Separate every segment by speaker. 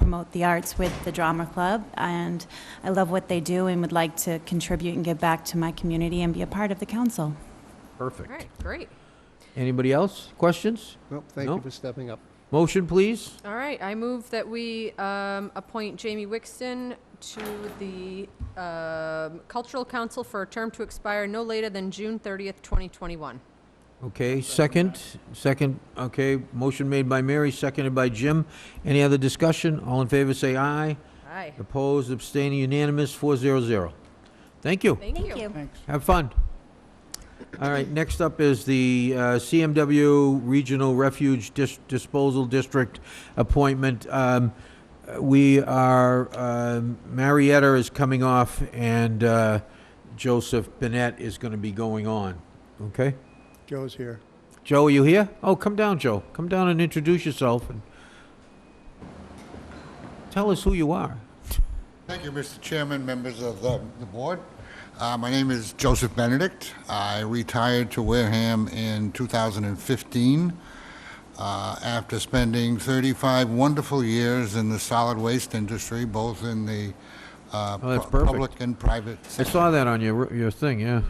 Speaker 1: promote the arts with the Drama Club, and I love what they do and would like to contribute and give back to my community and be a part of the council.
Speaker 2: Perfect.
Speaker 3: All right, great.
Speaker 2: Anybody else? Questions?
Speaker 4: Well, thank
Speaker 2: No.
Speaker 4: you for stepping up.
Speaker 2: Motion, please.
Speaker 3: All right, I move that we um, appoint Jamie Wixton to the um, Cultural Council for a term to expire no later than June 30th, 2021.
Speaker 2: Okay, second, second, okay, motion made by Mary, seconded by Jim. Any other discussion? All in favor, say aye.
Speaker 3: Aye.
Speaker 2: Opposed, abstaining, unanimous, four zero zero. Thank you.
Speaker 3: Thank you.
Speaker 2: Have fun. All right, next up is the uh, CMW Regional Refuge Dis- Disposal District appointment. Um, We are, um, Marietta is coming off, and uh, Joseph Bennett is going to be going on, okay?
Speaker 4: Joe's here.
Speaker 2: Joe, are you here? Oh, come down, Joe. Come down and introduce yourself and tell us who you are.
Speaker 5: Thank you, Mr. Chairman, members of the the board. Uh, My name is Joseph Benedict. I retired to Wareham in 2015 uh, after spending 35 wonderful years in the solid waste industry, both in the uh,
Speaker 2: Oh, that's
Speaker 5: pu-
Speaker 2: perfect.
Speaker 5: public and private.
Speaker 2: I saw that on your, your thing, yeah.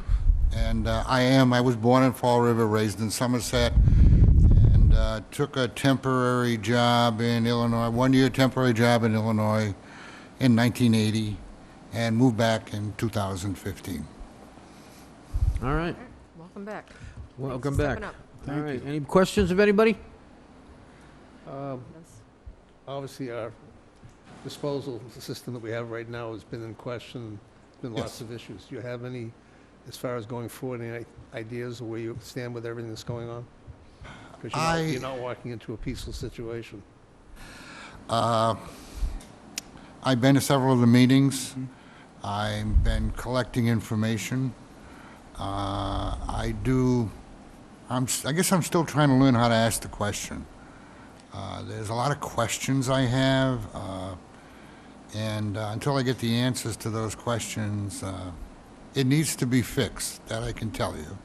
Speaker 5: And uh, I am, I was born in Fall River, raised in Somerset, and uh, took a temporary job in Illinois, one-year temporary job in Illinois in 1980, and moved back in 2015.
Speaker 2: All right,
Speaker 3: Welcome back.
Speaker 2: welcome
Speaker 3: Thanks for
Speaker 2: back.
Speaker 3: stepping up.
Speaker 2: All right, any questions of anybody?
Speaker 4: Um, Obviously, our disposal system that we have right now has been in question, been lots
Speaker 5: Yes.
Speaker 4: of issues. Do you have any, as far as going forward, any i- ideas of where you stand with everything that's going on?
Speaker 5: I-
Speaker 4: Because you're not walking into a peaceful situation.
Speaker 5: I've been to several of the meetings. I've been collecting information. Uh, I do, I'm, s- I guess I'm still trying to learn how to ask the question. Uh, There's a lot of questions I have, uh, and uh, until I get the answers to those questions, uh, it needs to be fixed, that I can tell you.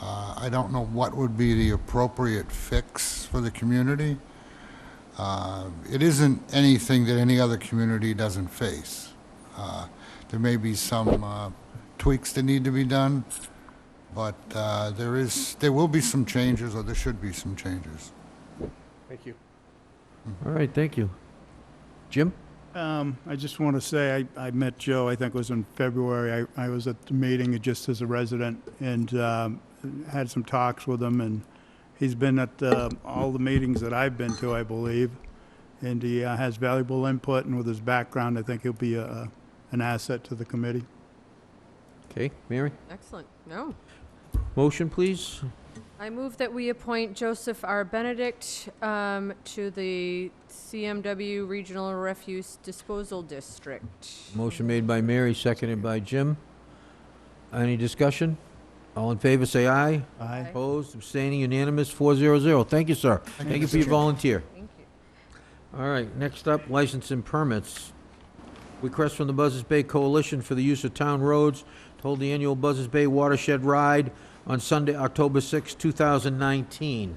Speaker 5: Uh, I don't know what would be the appropriate fix for the community. Uh, It isn't anything that any other community doesn't face. Uh, There may be some uh, tweaks that need to be done, but uh, there is, there will be some changes, or there should be some changes.
Speaker 4: Thank you.
Speaker 2: All right, thank you. Jim?
Speaker 6: Um, I just want to say, I, I met Joe, I think it was in February. I, I was at the meeting just as a resident and, um, had some talks with him and he's been at, uh, all the meetings that I've been to, I believe. And he uh, has valuable input and with his background, I think he'll be a, a- an asset to the committee.
Speaker 2: Okay, Mary?
Speaker 3: Excellent. No.
Speaker 2: Motion, please?
Speaker 3: I move that we appoint Joseph R. Benedict um, to the CMW Regional Refuse Disposal District.
Speaker 2: Motion made by Mary, seconded by Jim. Any discussion? All in favor, say aye.
Speaker 6: Aye.
Speaker 2: Opposed, abstaining, unanimous, four zero zero. Thank you, sir. Thank you for your volunteer.
Speaker 3: Thank you.
Speaker 2: All right, next up, license and permits. Request from the Buzzards Bay Coalition for the use of town roads to hold the annual Buzzards Bay Watershed Ride on Sunday, October sixth, two 2019.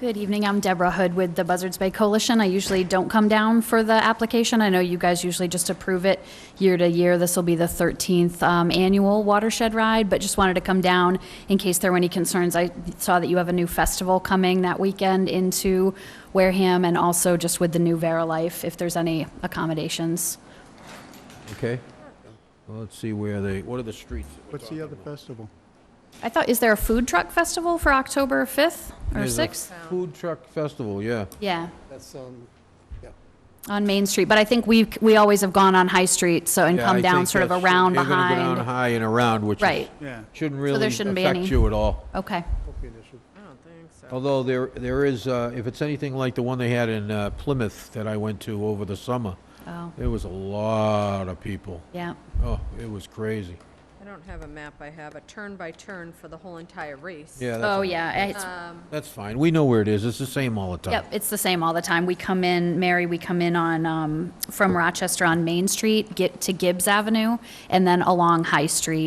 Speaker 7: Good evening, I'm Deborah Hood with the Buzzards Bay Coalition. I usually don't come down for the application. I know you guys usually just approve it year to year. This will be the 13th um, annual watershed ride, but just wanted to come down in case there were any concerns. I saw that you have a new festival coming that weekend into Wareham, and also just with the new Vera Life, if there's any accommodations.
Speaker 2: Okay? Well, let's see where they, what are the streets? that we're
Speaker 6: What's the other festival?
Speaker 7: I thought, is there a food truck festival for October 5th or
Speaker 2: There's a
Speaker 7: 6th?
Speaker 2: Food truck festival, yeah.
Speaker 7: Yeah.
Speaker 4: That's, um,
Speaker 7: On Main Street, but I think we, we always have gone on High Street, so, and
Speaker 2: Yeah,
Speaker 7: come
Speaker 2: I
Speaker 7: down
Speaker 2: think
Speaker 7: sort of
Speaker 2: that's-
Speaker 7: around
Speaker 2: You're gonna go down
Speaker 7: behind.
Speaker 2: high and around, which is-
Speaker 7: Right,
Speaker 6: Yeah.
Speaker 2: shouldn't
Speaker 7: there
Speaker 2: really
Speaker 7: shouldn't be
Speaker 2: affect
Speaker 7: any-
Speaker 2: you at all.
Speaker 7: okay.
Speaker 4: hope you initial.
Speaker 3: I don't think so.
Speaker 2: Although there, there is, uh, if it's anything like the one they had in uh, Plymouth that I went to over the summer,
Speaker 7: Oh,
Speaker 2: there was a lot of people.
Speaker 7: yeah.
Speaker 2: Oh, it was crazy.
Speaker 3: I don't have a map. I have a turn by turn for the whole entire race.
Speaker 2: Yeah, that's,
Speaker 7: Oh,
Speaker 2: all-
Speaker 7: yeah. It's,
Speaker 2: that's fine. We know where it is. It's the same all the time.
Speaker 7: yep, it's the same all the time. We come in, Mary, we come in on, um, from Rochester on Main Street, get to Gibbs Avenue, and then along High Street